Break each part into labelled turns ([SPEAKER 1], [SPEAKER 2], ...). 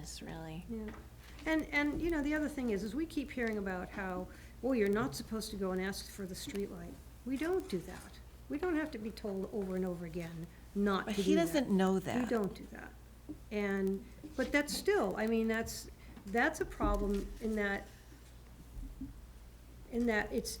[SPEAKER 1] is, really.
[SPEAKER 2] Yeah, and, and, you know, the other thing is, is we keep hearing about how, oh, you're not supposed to go and ask for the streetlight. We don't do that. We don't have to be told over and over again not to
[SPEAKER 3] But
[SPEAKER 2] do that.
[SPEAKER 3] he doesn't know
[SPEAKER 2] We
[SPEAKER 3] that.
[SPEAKER 2] don't do that. And, but that's still, I mean, that's, that's a problem in that, in that it's,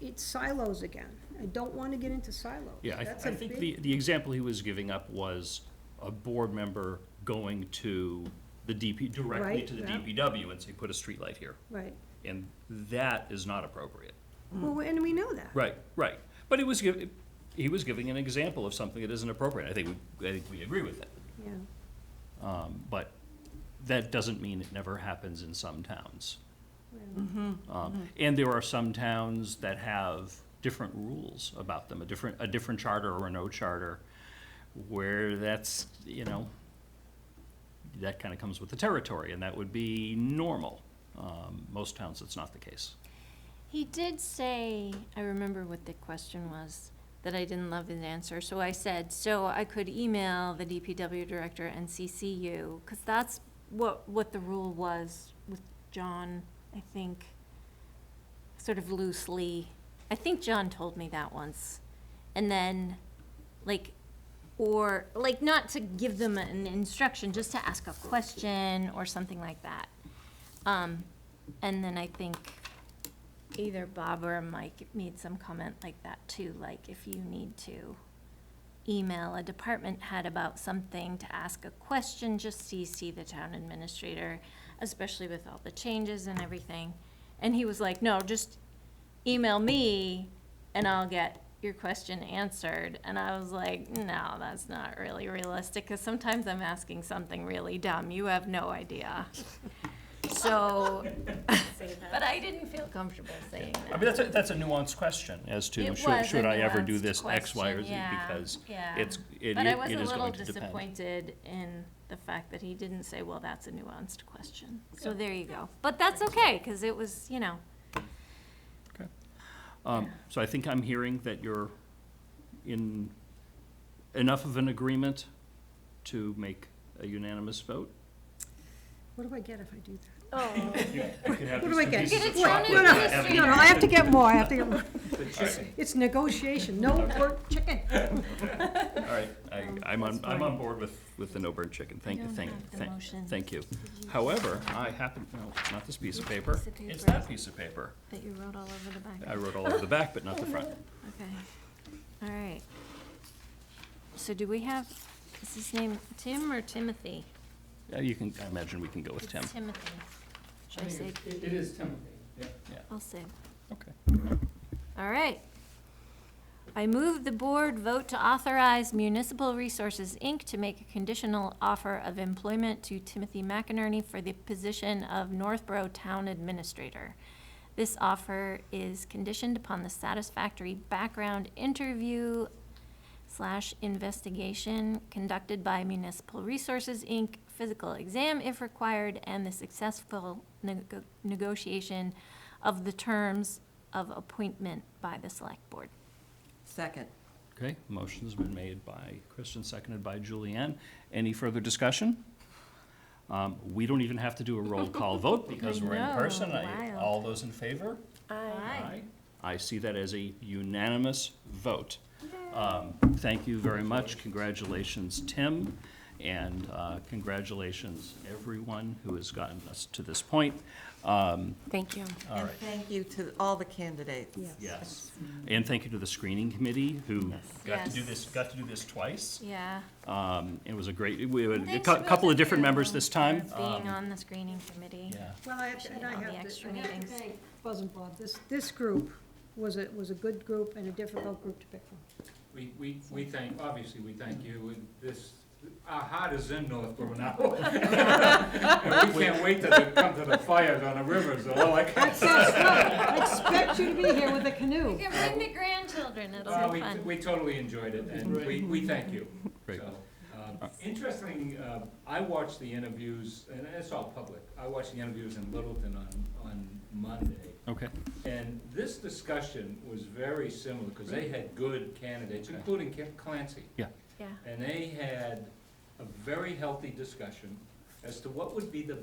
[SPEAKER 2] it's silos again. I don't want to get into silos.
[SPEAKER 4] Yeah, I,
[SPEAKER 2] That's
[SPEAKER 4] I
[SPEAKER 2] a
[SPEAKER 4] think
[SPEAKER 2] big-
[SPEAKER 4] the, the example he was giving up was a board member going to the DP, directly
[SPEAKER 2] Right,
[SPEAKER 4] to the
[SPEAKER 2] yeah.
[SPEAKER 4] DPW and say, put a streetlight here.
[SPEAKER 2] Right.
[SPEAKER 4] And that is not appropriate.
[SPEAKER 3] Mm.
[SPEAKER 2] Well, and we know that.
[SPEAKER 4] Right, right. But it was, giv- he was giving an example of something that isn't appropriate. I think, we- I think we agree with it.
[SPEAKER 2] Yeah.
[SPEAKER 4] Um, But that doesn't mean it never happens in some towns.
[SPEAKER 3] Mm-hmm.
[SPEAKER 4] Um, And there are some towns that have different rules about them, a different, a different charter or no charter, where that's, you know, that kind of comes with the territory, and that would be normal. Um, Most towns, that's not the case.
[SPEAKER 1] He did say, I remember what the question was, that I didn't love his answer, so I said, so I could email the DPW director and CC you, because that's what, what the rule was with John, I think, sort of loosely. I think John told me that once. And then, like, or, like, not to give them an instruction, just to ask a question or something like that. Um, and then I think either Bob or Mike made some comment like that too, like if you need to email a department head about something to ask a question, just CC the town administrator, especially with all the changes and everything. And he was like, no, just email me and I'll get your question answered. And I was like, no, that's not really realistic, because sometimes I'm asking something really dumb. You have no idea. So, but I didn't feel comfortable saying
[SPEAKER 4] I
[SPEAKER 1] that.
[SPEAKER 4] mean, that's a, that's a nuanced question as to,
[SPEAKER 1] It
[SPEAKER 4] should,
[SPEAKER 1] was
[SPEAKER 4] should
[SPEAKER 1] a
[SPEAKER 4] I ever do
[SPEAKER 1] nuanced
[SPEAKER 4] this X, Y, or Z?
[SPEAKER 1] question, yeah,
[SPEAKER 4] Because
[SPEAKER 1] yeah.
[SPEAKER 4] it's, it
[SPEAKER 1] But I
[SPEAKER 4] i-
[SPEAKER 1] was
[SPEAKER 4] it
[SPEAKER 1] a
[SPEAKER 4] is
[SPEAKER 1] little
[SPEAKER 4] going to depend.
[SPEAKER 1] disappointed in the fact that he didn't say, well, that's a nuanced question. So there you go. But that's okay, because it was, you know,
[SPEAKER 4] Um, so I think I'm hearing that you're in enough of an agreement to make a unanimous vote?
[SPEAKER 2] What do I get if I do that?
[SPEAKER 1] oh,
[SPEAKER 4] What
[SPEAKER 2] What do I get?
[SPEAKER 1] pieces of
[SPEAKER 2] What?
[SPEAKER 1] chocolate
[SPEAKER 2] No, no,
[SPEAKER 1] that have
[SPEAKER 2] No, no, I have to get more, I have to get more. It's negotiation, no
[SPEAKER 4] Okay.
[SPEAKER 2] pork chicken.
[SPEAKER 4] All right, I, I'm on,
[SPEAKER 2] That's
[SPEAKER 4] I'm on
[SPEAKER 2] fine.
[SPEAKER 4] board with, with the no burn chicken, thank,
[SPEAKER 1] I don't
[SPEAKER 4] thank,
[SPEAKER 1] have the
[SPEAKER 4] thank,
[SPEAKER 1] motions.
[SPEAKER 4] thank you. However, I happen, no, not this piece of paper,
[SPEAKER 1] Piece of
[SPEAKER 4] it's
[SPEAKER 1] paper.
[SPEAKER 4] that piece of paper.
[SPEAKER 1] that you wrote all over the back.
[SPEAKER 4] I wrote all over the back, but not the front.
[SPEAKER 1] Okay, all right. So do we have, is his name Tim or Timothy?
[SPEAKER 4] Yeah, You can, I imagine we can go with Tim,
[SPEAKER 1] It's Timothy. Should I say,
[SPEAKER 5] It is Timothy, yeah.
[SPEAKER 1] I'll say
[SPEAKER 4] okay.
[SPEAKER 1] All right. I move the board vote to authorize Municipal Resources, Inc. to make a conditional offer of employment to Timothy McInerney for the position of Northborough Town Administrator. This offer is conditioned upon the satisfactory background interview slash investigation conducted by Municipal Resources, Inc., physical exam if required, and the successful nego- negotiation of the terms of appointment by the select board.
[SPEAKER 3] Second.
[SPEAKER 4] Okay, motion's been made by Kristen, seconded by Julianne. Any further discussion? Um, We don't even have to do a roll call vote because we're in
[SPEAKER 1] know,
[SPEAKER 4] person. I-
[SPEAKER 1] wild.
[SPEAKER 4] All those in favor? Aye. I see that as a unanimous vote. Um, Thank you very much. Congratulations, Tim, and uh, congratulations, everyone who has gotten us to this point. Um,
[SPEAKER 1] Thank you.
[SPEAKER 4] All
[SPEAKER 3] And
[SPEAKER 4] right.
[SPEAKER 3] thank you to all the candidates.
[SPEAKER 4] Yes. And thank you to the screening committee who got to do
[SPEAKER 1] Yes.
[SPEAKER 4] this, got to do this twice.
[SPEAKER 1] Yeah.
[SPEAKER 4] Um, It was a great, we had a
[SPEAKER 1] Thanks
[SPEAKER 4] cou-
[SPEAKER 1] to
[SPEAKER 4] couple of
[SPEAKER 1] both
[SPEAKER 4] different
[SPEAKER 1] you
[SPEAKER 4] members this time.
[SPEAKER 1] for
[SPEAKER 4] Um,
[SPEAKER 1] Being on the screening committee.
[SPEAKER 4] Yeah,
[SPEAKER 2] Well, I have, to- and I
[SPEAKER 1] All the
[SPEAKER 2] have to,
[SPEAKER 1] extra
[SPEAKER 2] I have to
[SPEAKER 1] meetings.
[SPEAKER 2] thank Buzz and Bob, this, this group was a, was a good group and a difficult group to pick from.
[SPEAKER 5] We, we, we thank, obviously, we thank you, and this, our heart is in Northborough now. And we can't wait till they come to the fires on the rivers, all I can.
[SPEAKER 2] I expect you to be here with a canoe.
[SPEAKER 1] You can bring the grandchildren, it'll
[SPEAKER 5] Uh,
[SPEAKER 1] be
[SPEAKER 5] we,
[SPEAKER 1] fun.
[SPEAKER 5] we totally enjoyed it, and we, we thank you.
[SPEAKER 4] Great.
[SPEAKER 5] So, uh, Interesting, uh, I watched the interviews, and it's all public, I watched the interviews in Littleton on, on Monday.
[SPEAKER 4] okay.
[SPEAKER 5] And this discussion was very similar, because they had good candidates, including Ca- Clancy.
[SPEAKER 1] Yeah.
[SPEAKER 5] And they had a very healthy discussion, as to what would be the